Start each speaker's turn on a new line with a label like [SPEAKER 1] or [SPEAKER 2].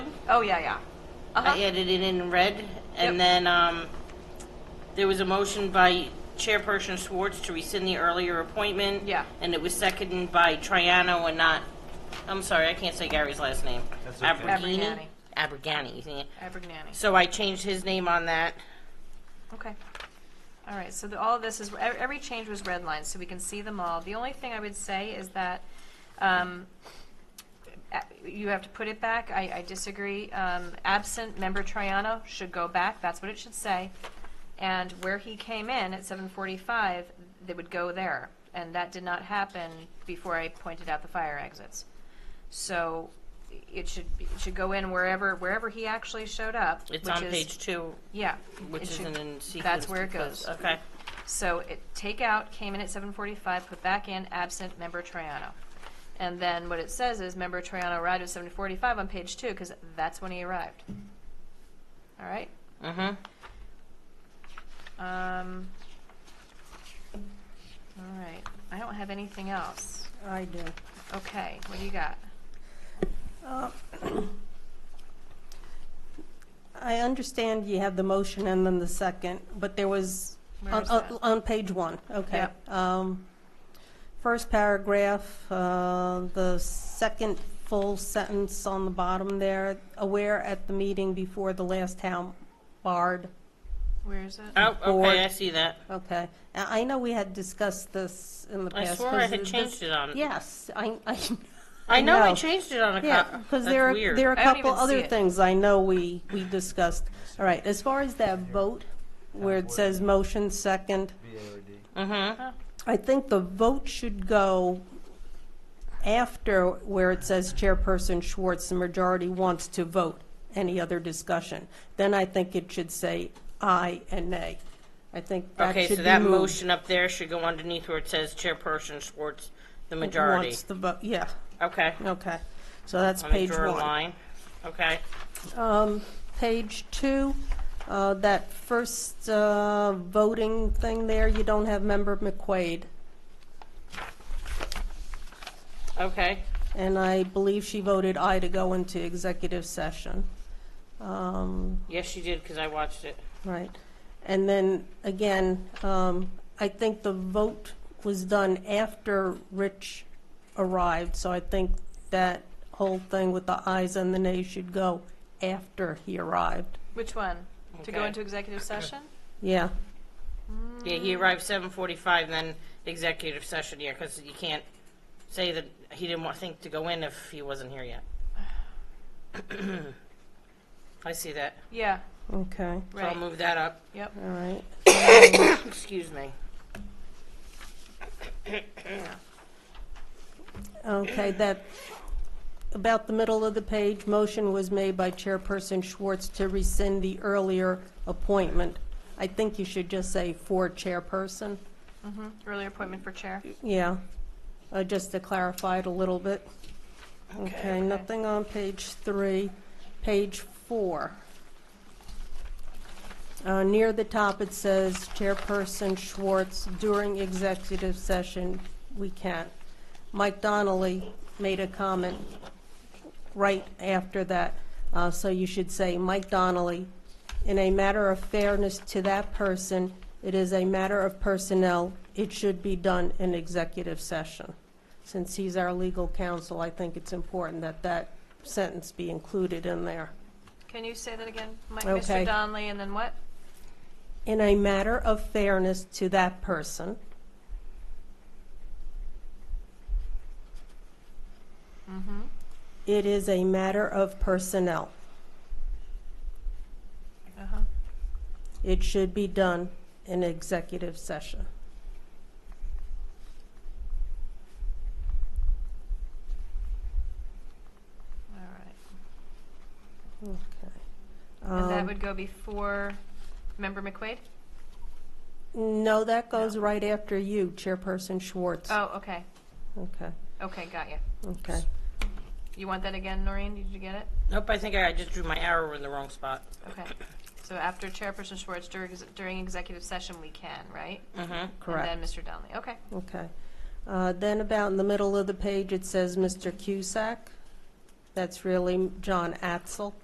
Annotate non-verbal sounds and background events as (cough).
[SPEAKER 1] Oh, yeah, yeah.
[SPEAKER 2] I
[SPEAKER 1] Uh-huh.
[SPEAKER 2] added it in red,
[SPEAKER 1] Yep.
[SPEAKER 2] and then, um, there was a motion by Chairperson Schwartz to rescind the earlier appointment.
[SPEAKER 1] Yeah.
[SPEAKER 2] And it was seconded by Triano and not, I'm sorry, I can't say Gary's last name.
[SPEAKER 3] That's okay.
[SPEAKER 2] Abrigani? Abrigani, yeah.
[SPEAKER 1] Abergnani.
[SPEAKER 2] So I changed his name on that.
[SPEAKER 1] Okay. All right, so the, all of this is, e- every change was redlined, so we can see them all. The only thing I would say is that, um, a- you have to put it back, I, I disagree. Um, absent member Triano should go back, that's what it should say. And where he came in at seven forty-five, they would go there. And that did not happen before I pointed out the fire exits. So it should, be- it should go in wherever, wherever he actually showed up, which
[SPEAKER 2] It's
[SPEAKER 1] is.
[SPEAKER 2] on page two,
[SPEAKER 1] Yeah.
[SPEAKER 2] which
[SPEAKER 1] it should-
[SPEAKER 2] isn't in sequence.
[SPEAKER 1] that's where it
[SPEAKER 2] because-
[SPEAKER 1] goes.
[SPEAKER 2] Okay.
[SPEAKER 1] So it, take out, came in at seven forty-five, put back in absent member Triano. And then what it says is member Triano arrived at seven forty-five on page two, because that's when he arrived. All right,
[SPEAKER 2] Mm-hmm.
[SPEAKER 1] um, all right, I don't have anything else.
[SPEAKER 4] I do.
[SPEAKER 1] Okay, what do you got?
[SPEAKER 4] Uh, (clears throat) I understand you have the motion and then the second, but there was,
[SPEAKER 1] Where
[SPEAKER 4] on,
[SPEAKER 1] is
[SPEAKER 4] on-
[SPEAKER 1] that?
[SPEAKER 4] on page one, okay.
[SPEAKER 1] Yep.
[SPEAKER 4] Um, First paragraph, uh, the second full sentence on the bottom there, aware at the meeting before the last town board,
[SPEAKER 1] Where is it?
[SPEAKER 2] Oh,
[SPEAKER 4] Board.
[SPEAKER 2] okay, I see that.
[SPEAKER 4] okay. I I know we had discussed this in the
[SPEAKER 2] I
[SPEAKER 4] past.
[SPEAKER 2] swore I
[SPEAKER 4] 'cause
[SPEAKER 2] had
[SPEAKER 4] this-
[SPEAKER 2] changed it on.
[SPEAKER 4] Yes, I, I (laughs)
[SPEAKER 2] I know I
[SPEAKER 4] know.
[SPEAKER 2] changed it on a
[SPEAKER 4] Yeah,
[SPEAKER 2] cop.
[SPEAKER 4] because
[SPEAKER 2] Uh, That's
[SPEAKER 4] there are,
[SPEAKER 2] weird.
[SPEAKER 4] there are a
[SPEAKER 1] I don't
[SPEAKER 4] couple
[SPEAKER 1] even see
[SPEAKER 4] other
[SPEAKER 1] it.
[SPEAKER 4] things I know we, we discussed. All right, as far as that vote, where it says motion second,
[SPEAKER 3] B A R D.
[SPEAKER 2] Mm-hmm.
[SPEAKER 4] I think the vote should go after where it says Chairperson Schwartz, the majority wants to vote. Any other discussion? Then I think it should say aye and nay. I think that
[SPEAKER 2] Okay,
[SPEAKER 4] should be moved.
[SPEAKER 2] so that motion up there should go underneath where it says Chairperson Schwartz, the majority.
[SPEAKER 4] Wants the vote, yeah,
[SPEAKER 2] Okay.
[SPEAKER 4] okay. So that's
[SPEAKER 2] Let me
[SPEAKER 4] page one.
[SPEAKER 2] draw a line. Okay.
[SPEAKER 4] Um, Page two, uh, that first uh, voting thing there, you don't have member McQuaid.
[SPEAKER 2] Okay.
[SPEAKER 4] And I believe she voted aye to go into executive session. Um,
[SPEAKER 2] Yes, she did because I watched it.
[SPEAKER 4] Right. And then, again, um, I think the vote was done after Rich arrived, so I think that whole thing with the ayes and the nays should go after he arrived.
[SPEAKER 1] Which one? To go
[SPEAKER 2] Okay.
[SPEAKER 1] into executive session?
[SPEAKER 4] Yeah.
[SPEAKER 2] Yeah, he arrived 7:45, then executive session here because you can't say that he didn't want think to go in if he wasn't here yet. (clears throat) I see that.
[SPEAKER 1] Yeah,
[SPEAKER 4] Okay,
[SPEAKER 2] So I'll
[SPEAKER 1] right,
[SPEAKER 2] move that up.
[SPEAKER 1] yep,
[SPEAKER 4] all right.
[SPEAKER 2] Excuse me.
[SPEAKER 4] Okay, that, about the middle of the page, motion was made by Chairperson Schwartz to rescind the earlier appointment. I think you should just say for chairperson,
[SPEAKER 1] hmm earlier appointment for chair.
[SPEAKER 4] yeah, uh, just to clarify it a little bit. Okay, nothing on page three. Page four. Uh, Near the top, it says Chairperson Schwartz, during executive session, we can't. Mike Donnelly made a comment right after that, uh, so you should say, Mike Donnelly, in a matter of fairness to that person, it is a matter of personnel, it should be done in executive session. Since he's our legal counsel, I think it's important that that sentence be included in there.
[SPEAKER 1] Can you say that again? Mi-
[SPEAKER 4] Okay.
[SPEAKER 1] Mr. Donnelly, and then what?
[SPEAKER 4] In a matter of fairness to that person,
[SPEAKER 1] Mm-hmm.
[SPEAKER 4] it is a matter of personnel.
[SPEAKER 1] Uh-huh.
[SPEAKER 4] It should be done in executive session.
[SPEAKER 1] All right.
[SPEAKER 4] Okay.
[SPEAKER 1] And that
[SPEAKER 4] Um,
[SPEAKER 1] would go before Member McQuaid?
[SPEAKER 4] No, that goes right after you, Chairperson Schwartz.
[SPEAKER 1] Oh, okay.
[SPEAKER 4] Okay,
[SPEAKER 1] Okay, got you.
[SPEAKER 4] okay.
[SPEAKER 1] You want that again, Noreen? Did you get it?
[SPEAKER 2] Nope, I think I I just drew my arrow in the wrong spot.
[SPEAKER 1] Okay. So after Chairperson Schwartz, during, during executive session, we can, right?
[SPEAKER 2] Mm-hmm.
[SPEAKER 1] And then Mr. Donnelly. Okay.
[SPEAKER 4] Okay. Uh, Then about in the middle of the page, it says Mr. Cusack. That's really John Atzel.